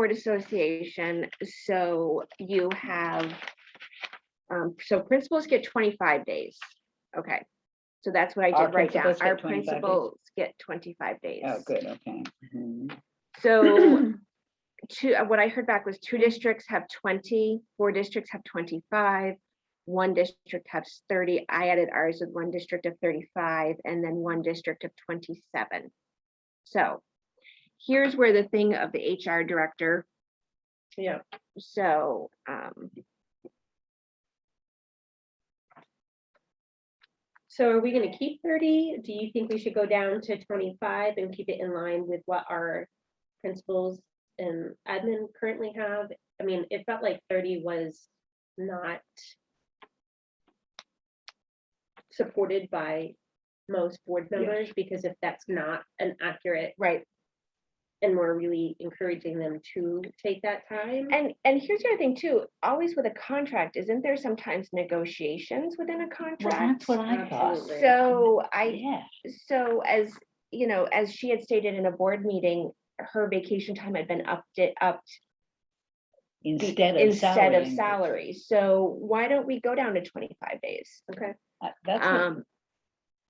Board Association, so you have, um, so principals get twenty-five days. Okay, so that's what I Our did write down. principals get Our 25 days. principals get twenty-five days. Oh, good, okay. Mhm. So two, uh, what I heard back was two districts have 20, four districts have twenty-five, one district has thirty. I added ours with one district of thirty-five and then one district of twenty-seven. So here's where the thing of the HR director Yeah, so, um, so are we gonna keep thirty? Do you think we should go down to twenty-five and keep it in line with what our principals and admin currently have? I mean, it felt like thirty was not supported by most board members, because if that's not an accurate, right, and we're really encouraging them to take that time. and, and here's the other thing too, always with a contract, isn't there sometimes negotiations within a Well, contract? that's what I thought. Absolutely. So I, Yeah, so as, you know, as she had stated in a board meeting, her vacation time had been upped, it upped instead of instead of salary, salary. so why don't we go down to twenty-five days? Okay, Uh, That's what Um,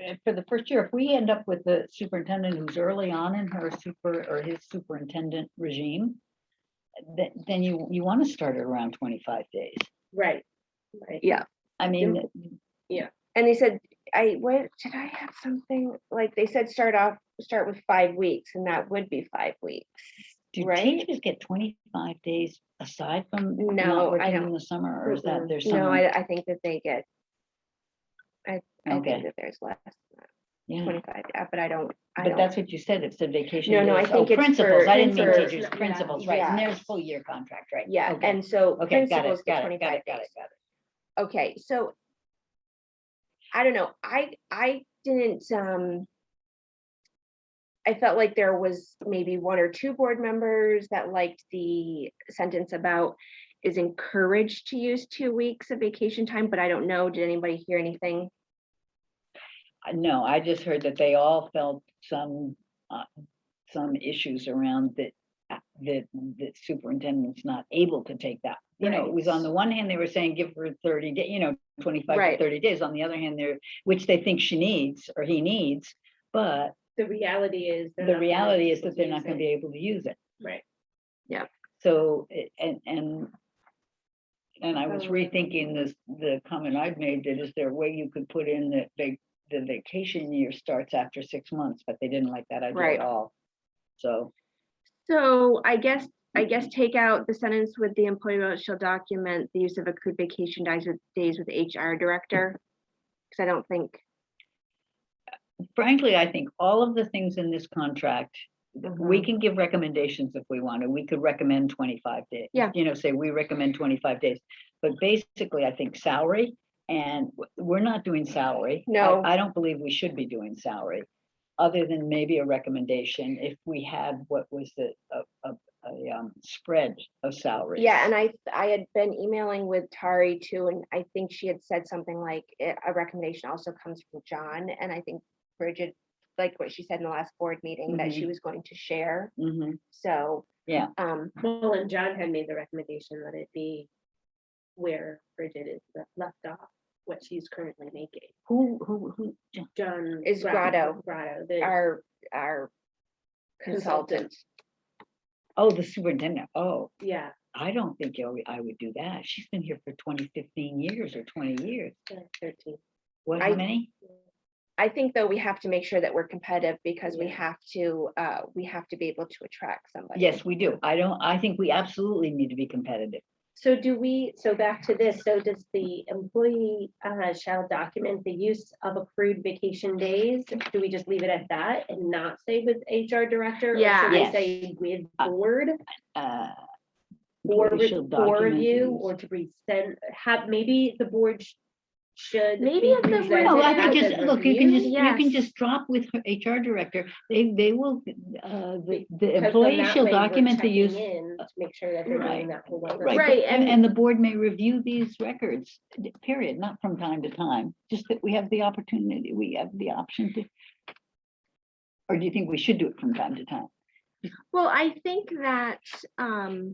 And for the first year, if we end up with the superintendent who's early on in her super or his superintendent regime, then, then you, you want to start at around twenty-five days. right, right. I mean, and they said, I, what, did I have something, like, they said, start off, start with five weeks, and that would be five weeks. do Right? teachers get twenty-five days aside from No, I not working in don't. the summer or is that Mm-mm. there's No, some? I, I think that they get, I think Okay, that there's less, than yeah, twenty-five, yeah, but I don't, I but don't, that's what you said, it said vacation. No, no, I days. Oh, think it's Principals, for- I didn't mean for- teachers, yeah, principals, right, and yeah. there's full year contract, right? yeah, okay, and so Okay, got principals it, get got it, got twenty-five it, got days. it, got it. Okay, so I don't know, I, I didn't, um, I felt like there was maybe one or two board members that liked the sentence about is encouraged to use two weeks of vacation time, but I don't know, did anybody hear anything? I- No, I just heard that they all felt some, uh, some issues around that, uh, that, that superintendent's not able to take that. You know, it was on the one hand, they were saying give her thirty day, you know, twenty-five Right. to thirty days. On the other hand, they're, which they think she needs or he needs. But The reality is. they're the not gonna reality be is able that to they're use not gonna it. be able to use it. Right, So, it- and, and and I was Oh. rethinking this, the comment I've made, that is there a way you could put in that vac the vacation year starts after six months, but they didn't like that idea Right. at all. So, So I guess, I guess take out the sentence with the employer shall document the use of accrued vacation days with, days with HR director. Cause I don't think, frankly, I think all of the things in this contract, we Mhm. can give recommendations if we wanted. We could recommend twenty-five days. Yeah. You know, say we recommend twenty-five days, but basically, I think salary, and w- we're not doing salary. I- No. I don't believe we should be doing salary, other than maybe a recommendation if we had what was the, a, a, a, um, spread of salaries. yeah, and I, I had been emailing with Tari too, and I think she had said something like, "Eh, a recommendation also comes from John, and I think Bridget, like what she said in the last board meeting, that she was going to share, Mhm. so. Yeah. Um, well, and John had made the recommendation that it be where Bridget is le- left off, what she's currently making. Who, who, who, John. Is Grotto. Grotto, the our, our consultant, Consultant. oh, the superintendent, oh. yeah, I don't think I would- I would do that. She's been here for 20, 15 years or twenty years. the thirteen. What, how I- many? I think though we have to make sure that we're competitive because we Yeah. have to, uh, we have to be able to attract somebody. Yes, we do. I don't, I think we absolutely need to be competitive. So do we, so back to this, so does the employee uh, shall document the use of accrued vacation days? Do we just leave it at that and not say with HR director? or should Yeah. we Yes. Say with Uh, board? Uh, Or, we re- shall or document review, these. or to resend, have, maybe the board sh- should. Maybe be if the board- presented No, I as think just, a look, you can review, just, you can Yes. just drop with her HR director. They, they will, uh, the, the because then employee that shall way we're document the checking use. in To make sure that they're Right. doing that. for what we're- Right, Right, but- and, and- and the board may review these records, d- period, not from time to time, just that we have the opportunity, we have the option to. Or do you think we should do it from time to time? Well, I think that, um,